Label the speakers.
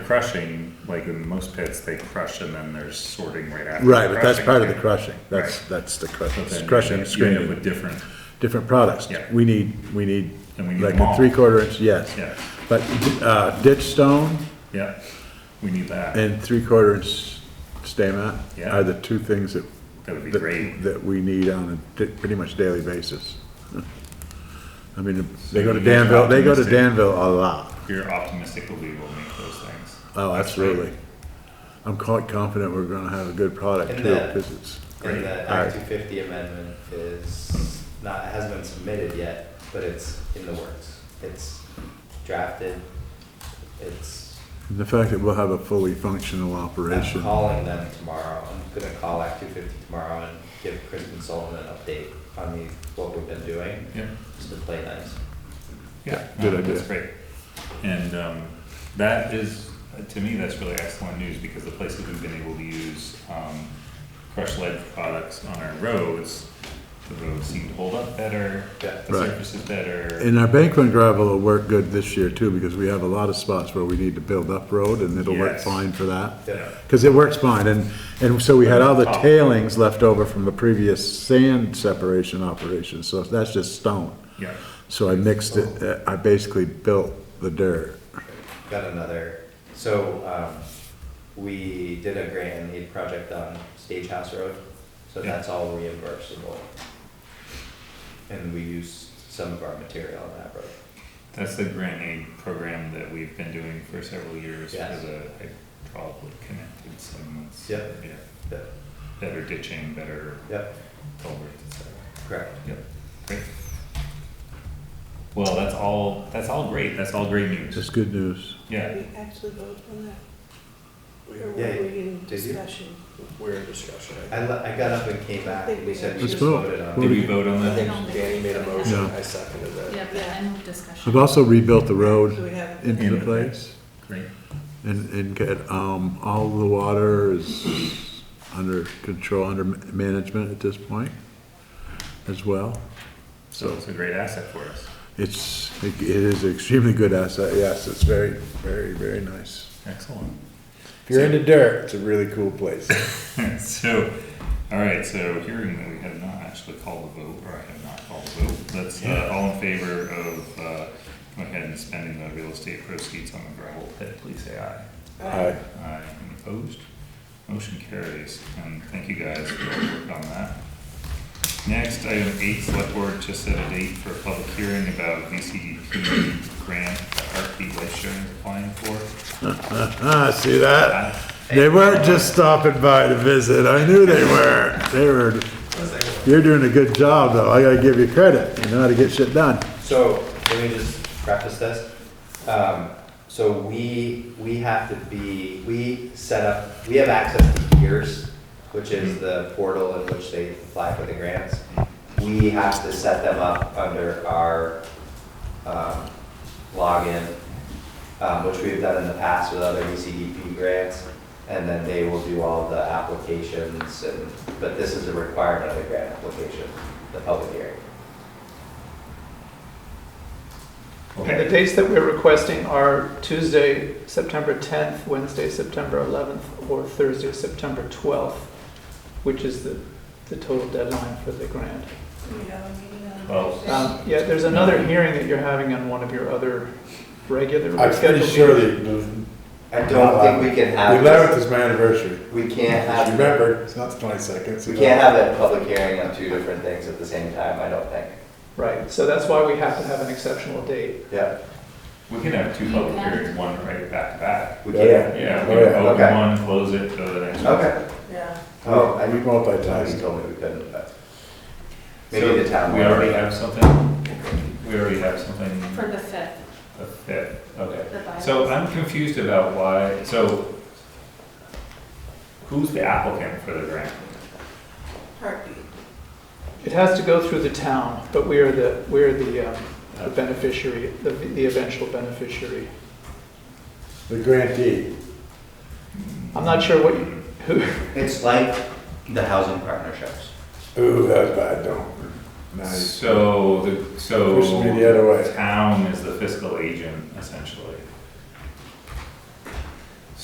Speaker 1: crushing, like in most pits, they crush and then there's sorting right after.
Speaker 2: Right, but
Speaker 1: the
Speaker 2: that's part of the
Speaker 1: crushing.
Speaker 2: crushing, that's,
Speaker 1: Right.
Speaker 2: that's the crushing,
Speaker 1: But then you
Speaker 2: crushing,
Speaker 1: end up
Speaker 2: screening,
Speaker 1: With different,
Speaker 2: different products.
Speaker 1: Yeah.
Speaker 2: We need, we need,
Speaker 1: And we need
Speaker 2: like
Speaker 1: them
Speaker 2: a
Speaker 1: all.
Speaker 2: three-quarter inch, yes.
Speaker 1: Yeah.
Speaker 2: But, uh, ditch stone
Speaker 1: yeah, we need that,
Speaker 2: and three-quarter inch stamen
Speaker 1: Yeah.
Speaker 2: are the two things that.
Speaker 1: that would be
Speaker 2: that-
Speaker 1: great.
Speaker 2: That we need on a di- pretty much daily basis. I mean, they go to
Speaker 1: So you're
Speaker 2: Danville, they go to
Speaker 1: optimistic.
Speaker 2: Danville a lot.
Speaker 1: You're optimistic that we will make those things.
Speaker 2: Oh,
Speaker 1: That's great.
Speaker 2: absolutely. I'm quite confident we're gonna have a good product
Speaker 3: And
Speaker 2: too,
Speaker 3: the-
Speaker 2: because it's.
Speaker 3: And the
Speaker 2: Alright.
Speaker 3: Act two fifty amendment is not, hasn't been submitted yet, but it's in the works. It's drafted, it's,
Speaker 2: And The fact that we'll have a fully functional
Speaker 3: I'm
Speaker 2: operation.
Speaker 3: calling them tomorrow, I'm gonna call Act two fifty tomorrow and give Kristen Sullivan an update on the, what we've been doing,
Speaker 1: Yeah.
Speaker 3: just to play nice.
Speaker 1: Yeah,
Speaker 2: Good
Speaker 1: no,
Speaker 2: idea.
Speaker 1: That's great. And um, that is, uh, to me, that's really excellent news because the places we've been able to use um, crushed lead products on our roads, the roads seem to hold up better,
Speaker 3: Yeah.
Speaker 1: the
Speaker 2: Right.
Speaker 1: surface is better.
Speaker 2: And our bank run gravel will work good this year too, because we have a lot of spots where we need to build up road and it'll work
Speaker 1: Yes.
Speaker 2: fine for that.
Speaker 1: Yeah.
Speaker 2: Cause it works fine and, and so we had all the tailings left over from the previous sand separation operation, so that's just stone.
Speaker 1: Yeah,
Speaker 2: So I mixed it, uh, I basically built the dirt.
Speaker 3: Got another, so, um, we did a grant and aid project on Stagehouse Road, so
Speaker 1: Yeah.
Speaker 3: that's all reimbursable. And we used some of our material on that road.
Speaker 1: that's the grant aid program that we've been doing for several years for
Speaker 3: Yes.
Speaker 1: the hydraulically connected segments.
Speaker 3: Yep.
Speaker 1: Yeah,
Speaker 3: Yep,
Speaker 1: better ditching, better
Speaker 3: yep,
Speaker 1: culverts, et cetera.
Speaker 3: correct.
Speaker 1: Yep, great. Well, that's all, that's all great, that's all great news,
Speaker 2: Just good news.
Speaker 1: yeah.
Speaker 4: We actually voted on that? Or were
Speaker 3: Yeah,
Speaker 4: we in
Speaker 3: did you?
Speaker 4: discussion?
Speaker 5: We're in discussion. I
Speaker 3: I, le- I got up and came back and we said we
Speaker 4: Let's
Speaker 3: just
Speaker 2: vote.
Speaker 3: voted
Speaker 1: Did
Speaker 3: on it.
Speaker 1: we vote on
Speaker 5: I
Speaker 1: that?
Speaker 5: think Danny made a motion,
Speaker 2: Yeah.
Speaker 5: I seconded it.
Speaker 6: Yeah, but I move discussion.
Speaker 2: I've also rebuilt the road
Speaker 4: So we haven't-
Speaker 2: into place
Speaker 1: Great,
Speaker 2: and, and get, um, all the water is under control, under ma- management at this point as well.
Speaker 1: so it's a great asset for us,
Speaker 2: It's, it is extremely good asset, yes, it's very, very, very nice.
Speaker 1: excellent.
Speaker 2: If you're into dirt, it's a really cool place.
Speaker 1: So, all right, so hearing that we have not actually called the vote, or I have not called the vote, that's, uh, all in favor of, uh, go ahead and spending the real estate proceeds on the gravel pit, please say aye.
Speaker 2: Aye.
Speaker 1: Aye, any opposed? Motion carries, and thank you guys for your work on that. Next, item eight, select board to set a date for a public hearing about VCDP grant that Heartbeat Life Sharing is applying for.
Speaker 2: Ah, see that? They weren't just stopping by to visit, I knew they were, they were, you're doing a good job though, I gotta give you credit, you know how to get shit done.
Speaker 3: So, let me just preface this. Um, so we, we have to be, we set up, we have access to Gears, which is the portal in which they apply for the grants. We have to set them up under our, um, login, um, which we've done in the past with other E ECDP grants. And then they will do all the applications and, but this is a requirement of the grant application, the public hearing.
Speaker 7: And the dates that we're requesting are Tuesday, September 10th, Wednesday, September 11th, or Thursday, September 12th, which is the, the total deadline for the grant.
Speaker 4: Do we have a meeting on
Speaker 1: Well,
Speaker 4: Thursday?
Speaker 7: Um, Yeah, there's another hearing that you're having on one of your other regular.
Speaker 5: I'm pretty
Speaker 7: scheduled
Speaker 5: sure
Speaker 7: meetings.
Speaker 5: the, the
Speaker 3: I don't think we can have
Speaker 5: eleventh
Speaker 3: this,
Speaker 5: is my anniversary.
Speaker 3: we can't
Speaker 5: Just
Speaker 3: have,
Speaker 5: remember, it's not the twenty-second.
Speaker 3: we can't have a public hearing on two different things at the same time, I don't think.
Speaker 7: Right, so that's why we have to have an exceptional date.
Speaker 3: Yeah,
Speaker 1: We can have two public hearings, one right back to back.
Speaker 3: we
Speaker 5: Yeah.
Speaker 3: can.
Speaker 1: Yeah,
Speaker 5: Oh,
Speaker 1: we
Speaker 5: yeah.
Speaker 1: can open
Speaker 3: Okay.
Speaker 1: one, close it, go to the next one.
Speaker 3: Okay.
Speaker 4: Yeah,
Speaker 3: Oh, I
Speaker 5: We
Speaker 3: mean, you
Speaker 5: multitask.
Speaker 3: told me we couldn't, but maybe the
Speaker 1: So
Speaker 3: town.
Speaker 1: We
Speaker 3: will.
Speaker 1: already have something, we already have something,
Speaker 6: For the fifth,
Speaker 1: a fifth, okay.
Speaker 6: the bylaws.
Speaker 1: So I'm confused about why, so who's the applicant for the grant?
Speaker 4: heartbeat.
Speaker 7: It has to go through the town, but we are the, we are the um, the beneficiary, the the eventual beneficiary.
Speaker 5: The grantee.
Speaker 7: I'm not sure what, you who,
Speaker 3: It's like the housing partnerships.
Speaker 5: Ooh, that's bad, no. Nice.
Speaker 1: So, the, so.
Speaker 5: Push me the other way.
Speaker 1: Town is the fiscal agent essentially.